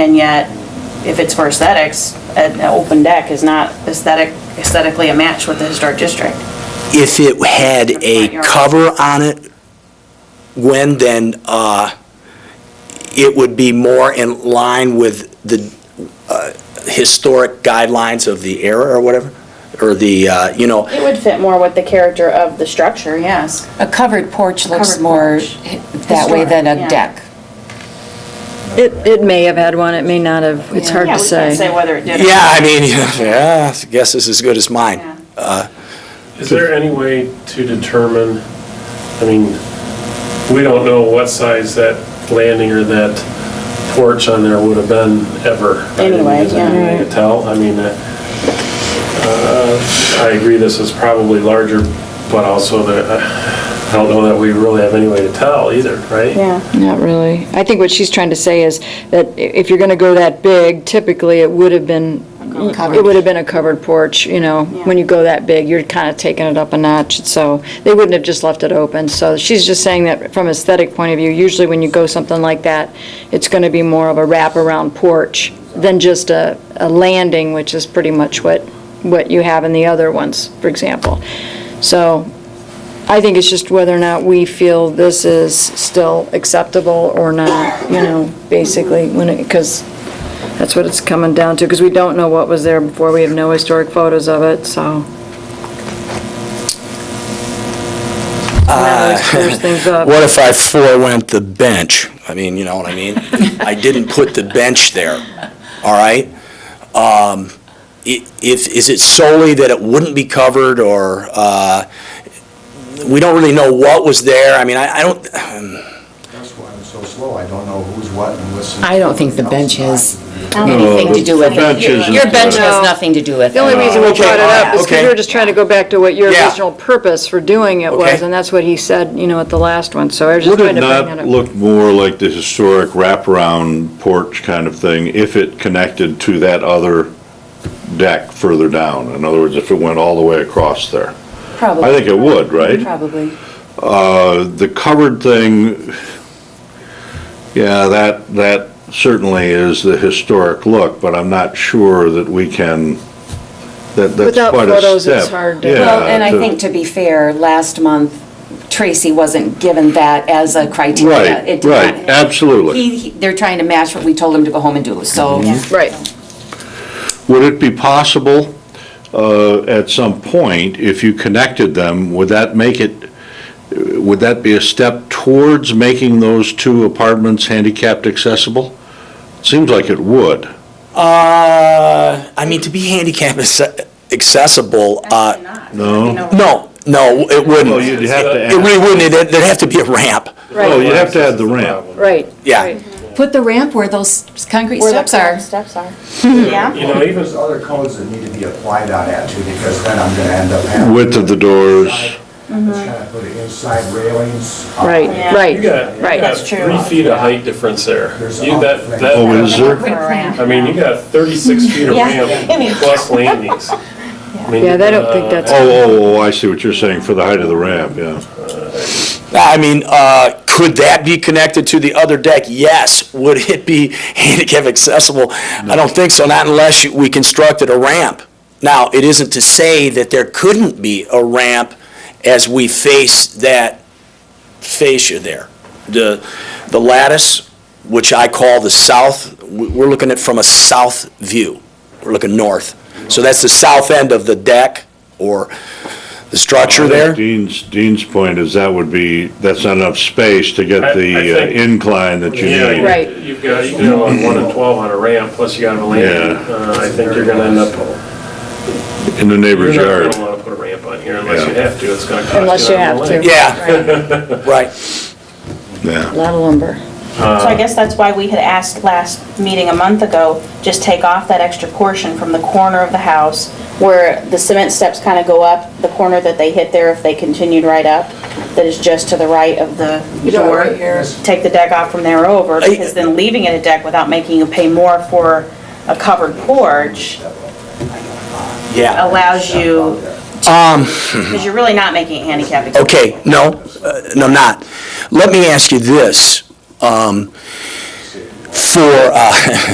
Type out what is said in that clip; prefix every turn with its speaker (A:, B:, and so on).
A: And yet, if it's for aesthetics, an open deck is not aesthetic, aesthetically a match with the historic district.
B: If it had
A: Front
B: a
A: yard.
B: cover on it, when then, uh, it would be more in line with the uh, historic guidelines of the era or whatever, or the, uh, you know,
A: It would fit more with the character of the structure, yes.
C: A covered porch looks
A: Covered
C: more
A: porch.
C: hi- that way than
A: Historic, yeah.
C: a deck.
D: It, it may have had one, it may not have, it's hard
A: Yeah,
D: to
A: we can't say
D: say.
A: whether it did or not.
B: yeah, I mean, yeah, I guess it's as good as
A: Yeah.
B: mine. Uh,
E: Is there any way to determine, I mean, we don't know what size that landing or that porch on there would have been ever.
A: Anyway,
E: Is
A: yeah.
E: there any way to tell? I mean, uh, uh, I agree this is probably larger, but also that, uh, I don't know that we really have any way to tell either, right?
A: Yeah,
D: Not really. I think what she's trying to say is that i- if you're going to go that big, typically it would have been, it would have been a covered porch, you know? When you go that big, you're kind of taking it up a notch, so they wouldn't have just left it open. So she's just saying that from aesthetic point of view, usually when you go something like that, it's going to be more of a wraparound porch than just a, a landing, which is pretty much what, what you have in the other ones, for example. So I think it's just whether or not we feel this is still acceptable or not, you know, basically, when it, because that's what it's coming down to, because we don't know what was there before, we have no historic photos of it, so. That always clears things up.
B: Uh, What if I forewent the bench? I mean, you know what I mean? I didn't put the bench there, all right? Um, i- If, is it solely that it wouldn't be covered, or, uh, we don't really know what was there? I mean, I I don't,
F: That's why I'm so slow, I don't know who's what and what's.
C: I don't think the bench has anything
G: anything
C: to do with it. Your bench has nothing to do with it.
D: The only reason we
B: Okay,
D: brought it up is because
B: okay.
D: we were just trying to go back to what your
B: Yeah.
D: original purpose for doing it was,
B: Okay.
D: and that's what he said, you know, at the last one, so I was just
G: Would
D: trying
G: it
D: to bring that
G: not
D: up.
G: look more like the historic wraparound porch kind of thing if it connected to that other deck further down? In other words, if it went all the way across there?
C: Probably.
G: I think it would, right?
C: Probably.
G: Uh, The covered thing, yeah, that, that certainly is the historic look, but I'm not sure that we can, that, that's
D: Without
G: quite a
D: photos, it's
G: step.
D: hard to-
G: Yeah,
C: Well, and I
G: to-
C: think, to be fair, last month, Tracy wasn't given that as a criteria.
G: Right,
C: It did not-
G: right, absolutely.
C: He- he- They're trying to match what we told him to go home and do, so.
G: Mm-hmm.
D: Right.
G: Would it be possible, uh, at some point, if you connected them, would that make it, would that be a step towards making those two apartments handicapped accessible? Seems like it would.
B: uh, I mean, to be handicap acce- accessible, uh,
A: Actually not.
G: No.
B: no, no, it wouldn't.
G: Well, you'd have to
B: It really
G: add,
B: wouldn't, There'd- there'd have to be a ramp.
G: well, you'd have to add the ramp.
D: Right.
B: Yeah.
D: right.
C: Put the ramp where those concrete steps are.
A: Steps are.
E: You know, even,
F: There's other codes that need to be applied on that too, because then I'm gonna end up having.
G: Width of the doors.
F: It's kind of put inside railings. uh,
D: Right,
A: Yeah.
E: you
D: right.
E: got, you
D: Right.
E: got
A: That's true.
E: three feet of height difference there.
F: There's
E: You,
F: a-
E: that, that.
G: Oh, is there?
E: I mean, you got 36 feet of ramp plus landings. I mean,
D: Yeah, they don't
E: uh,
D: think that's-
G: Oh, oh, oh, I see what you're saying, for the height of the ramp, yeah.
B: I mean, uh, could that be connected to the other deck? Yes. Would it be handicap accessible? I don't think so, not unless you- we constructed a ramp. Now, it isn't to say that there couldn't be a ramp as we face that fascia there. The, the lattice, which I call the south, we- we're looking at from a south view. We're looking north. So that's the south end of the deck or the structure there.
G: Dean's, Dean's point is that would be, that's not enough space to
E: I- I
G: get the uh,
E: think-
G: incline that you
E: Yeah,
G: need.
E: you-
D: Right.
E: you've got, you go on one and 12 on a ramp, plus you got a landing.
G: Yeah.
E: Uh, I think you're gonna end up,
G: In the
E: you're
G: neighbor's
E: not
G: yard.
E: gonna wanna put a ramp on here unless you
G: Yeah.
E: have to, it's gonna cost you.
D: Unless you
E: an arm
D: have
E: and a
D: to.
E: leg.
B: Yeah, right.
G: Yeah.
D: A lot of lumber.
A: So I guess that's why we had asked last meeting a month ago, just take off that extra portion from the corner of the house where the cement steps kind of go up, the corner that they hit there if they continued right up, that is just to the right of the
D: know,
A: door.
D: right here.
A: Take the deck off from there over, because then leaving it a deck without making you pay more for a covered porch
B: Yeah.
A: allows you,
B: Um,
A: because you're really not making it handicap accessible.
B: okay, no, uh, no, I'm not. Let me ask you this, um, for, uh,